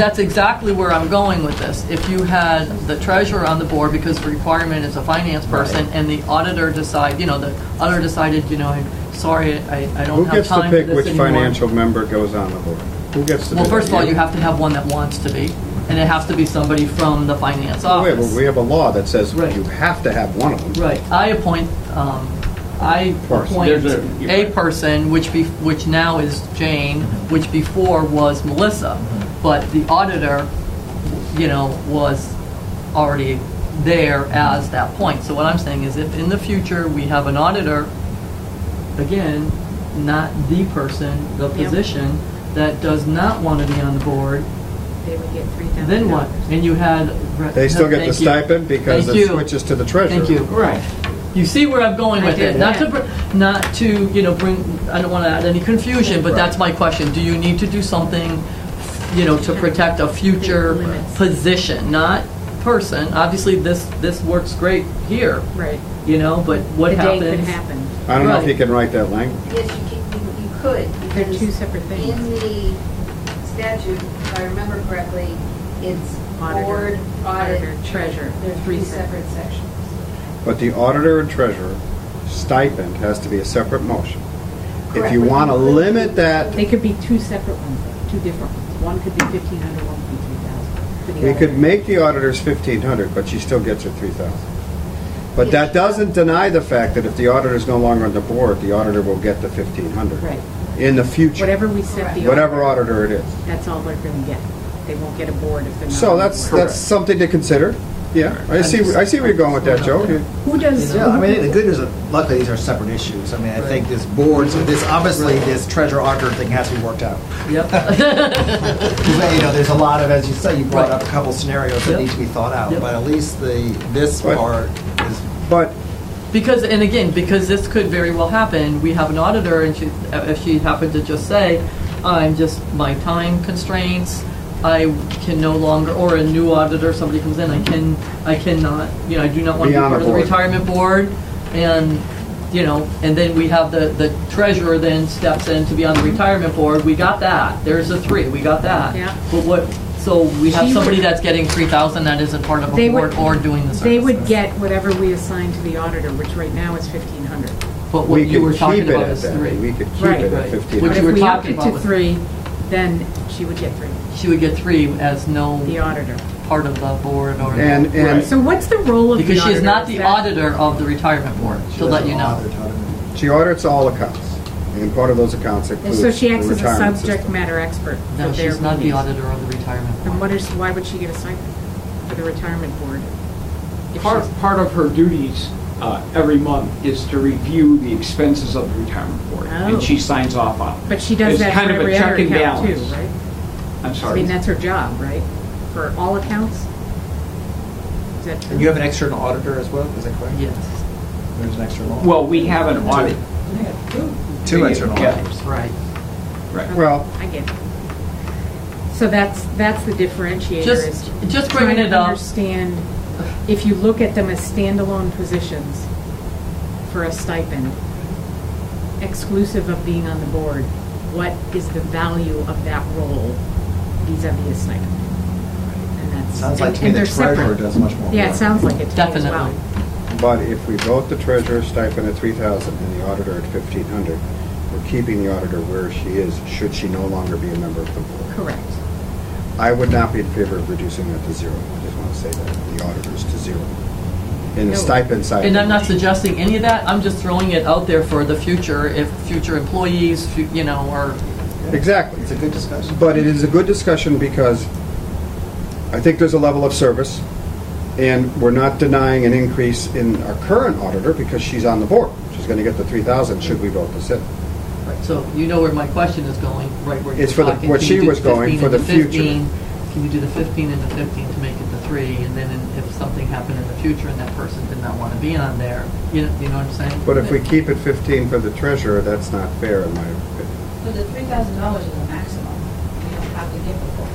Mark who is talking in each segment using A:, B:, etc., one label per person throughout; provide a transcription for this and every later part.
A: That's exactly where I'm going with this. If you had the treasurer on the board, because the requirement is a finance person,
B: Right.
A: and the auditor decide, you know, the auditor decided, you know, I'm sorry, I, I don't
B: Who
A: have
B: gets to
A: time for
B: pick
A: this
B: which
A: anymore.
B: financial member goes on the board? Who gets to?
A: Well,
B: do
A: first of
B: that?
A: all, you have to have one that wants to be, and it has to be somebody from the finance
B: Oh, wait,
A: office.
B: well, We have a law that says
A: Right.
B: you have to have one of them.
A: Right, I appoint, um, I
B: Person.
A: appoint
C: There's a- you're
A: a
C: right.
A: person, which be, which now is Jane, which before was Melissa, but the auditor, you know, was already there as that point. So what I'm saying is if in the future we have an auditor, again, not the person, the
D: Yeah.
A: position, that does not want to be on the board,
D: They would get three thousand.
A: then what? And you had.
B: They still get the
A: Thank you.
B: stipend because
A: Thank
B: it
A: you.
B: switches to the treasurer.
A: Thank you. Right. You see where I'm going
D: I
A: with it?
D: did,
A: Not to,
D: yeah.
A: br- not to, you know, bring, I don't want to add any confusion, but that's my question. Do you need to do something, you know, to protect a future
D: Limits.
A: position, not person? Obviously, this, this works great here,
D: Right.
A: you know, but what
D: The day could
A: happens?
D: happen.
B: I don't know if you
A: Right.
B: can write that language.
E: Yes, you can- you- you could.
D: They're two
E: because
D: separate things.
E: In the statute, if I remember correctly, it's
D: Auditor,
E: board,
D: auditor,
E: audit.
D: treasurer.
E: They're three separate sections.
B: But the auditor and treasurer stipend has to be a separate motion. If
E: Correct.
B: you want to limit that,
D: They could be two separate ones, two different ones. One could be fifteen hundred, one could be three thousand. for the
B: we
D: other.
B: could make the auditors fifteen hundred, but she still gets her three thousand. But that doesn't deny the fact that if the auditor's no longer on the board, the auditor will get the fifteen hundred.
D: Right.
B: In the future.
D: Whatever we set the.
B: Whatever auditor it is.
D: That's all they're gonna get. They won't get a board if they're not.
B: So
D: on the
B: that's,
D: board.
B: that's something to consider. Yeah, I see, I see where you're going with that, Joe. You-
D: Who does?
F: Yeah, I mean, the good news, is luckily, these are separate issues. I mean, I think this board, so this, obviously, this treasure auditor thing has to be worked out.
A: Yep.
F: Because, you know, there's a lot of, as you say, you brought
A: Right.
F: up a couple scenarios
A: Yep.
F: that need to be thought out,
A: Yep.
F: but at least the, this
B: Right.
F: part is,
B: But
A: Because, and again, because this could very well happen, we have an auditor, and she, if she happened to just say, I'm just, my time constraints, I can no longer, or a new auditor, somebody comes in, I can, I cannot, you know, I do not want to
B: Be
A: be
B: on the
A: part of the
B: board.
A: retirement board, and, you know, and then we have the, the treasurer then steps in to be on the retirement board, we got that, there's a three, we got that.
D: Yeah.
A: But what, so we have
D: She
A: somebody
D: would-
A: that's getting three thousand that isn't part of a
D: They
A: board
D: would-
A: or doing the services.
D: They would get whatever we assign to the auditor, which right now is fifteen hundred.
A: But what
B: we
A: you were
B: could
A: talking
B: keep it
A: about
B: at
A: is
B: that.
A: three.
B: We could keep
D: Right.
B: it at
A: Right.
B: fifteen
A: Which you
B: hundred.
D: But if
A: were
D: we upped
A: talking
D: it
A: about
D: to
A: was-
D: three, then she would get three,
A: She would get three as
D: the
A: no
D: auditor.
A: part of the board or.
B: And, and
D: So what's the role of the auditor?
A: Because she is not the
D: that-
A: auditor of the retirement board,
F: she
A: to let you
F: doesn't
A: know.
F: bother to-
B: she audits all accounts, and part of those accounts
D: And
B: includes the
D: so she acts as a
B: retirement
D: subject
B: system.
D: matter expert for their
A: No,
D: meetings.
A: she's not the auditor of the retirement
D: Then what
A: board.
D: is, why would she get a stipend for the retirement board? If
C: Part,
D: she's-
C: part of her duties uh, every month is to review the expenses of the retirement board,
D: Oh.
C: and she signs off on it.
D: But she does
C: It's
D: that
C: kind
D: for
C: of a
D: every
C: check
D: other
C: and
D: account too,
C: balance.
D: right?
C: I'm
D: I
C: sorry.
D: mean, that's her job, right? For all accounts? Is that true?
F: And you have an external auditor as well, is that correct?
A: Yes,
F: There's an external. auditor.
C: Well, we have an audit.
F: Two external
C: Yeah,
F: auditors.
A: right.
C: Right.
B: Well-
D: I get it. So that's, that's the differentiator
A: Just-
D: is.
A: just bringing
D: trying
A: it
D: to
A: up.
D: Understand, if you look at them as standalone positions for a stipend, exclusive of being on the board, what is the value of that role vis-à-vis a stipend? And that's.
F: Sounds like
D: and-
F: to me
D: and
F: the
D: they're separate.
F: treasurer does much more.
D: Yeah,
F: work.
D: it sounds like it to me as well.
A: Definitely.
B: But if we vote the treasurer's stipend at three thousand and the auditor at fifteen hundred, we're keeping the auditor where she is, should she no longer be a member of the board.
D: Correct.
B: I would not be in favor of reducing that to zero. I just want to say that, the auditors to zero. In the
D: No.
B: stipend side.
A: And I'm not suggesting any of that, I'm just throwing it out there for the future, if future employees, fu- you know, or,
B: Exactly.
F: It's a good discussion.
B: But it is a good discussion because I think there's a level of service, and we're not denying an increase in our current auditor because she's on the board. She's going to get the 3,000 should we vote this in.
A: so you know where my question is going, right where you're talking.
B: It's for the- where
A: Can
B: she
A: you do
B: was
A: 15
B: going, for
A: and
B: the future.
A: 15? Can you do the 15 and the 15 to make it the three, and then in- if something happened in the future and that person did not want to be on there, you know, you know what I'm saying?
B: But if we keep it 15 for the treasurer, that's not fair in my opinion.
G: But the three thousand dollars is the maximum. You don't have to give it for,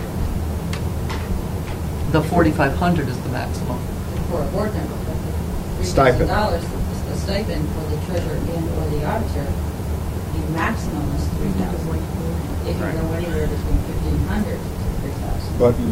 A: The 4,500 is the maximum.
G: for a board member. but the
B: Stipend.
G: $3,000, the stipend for the treasurer and or the auditor, the maximum is three thousand. It can go anywhere between fifteen hundred to three thousand.
B: But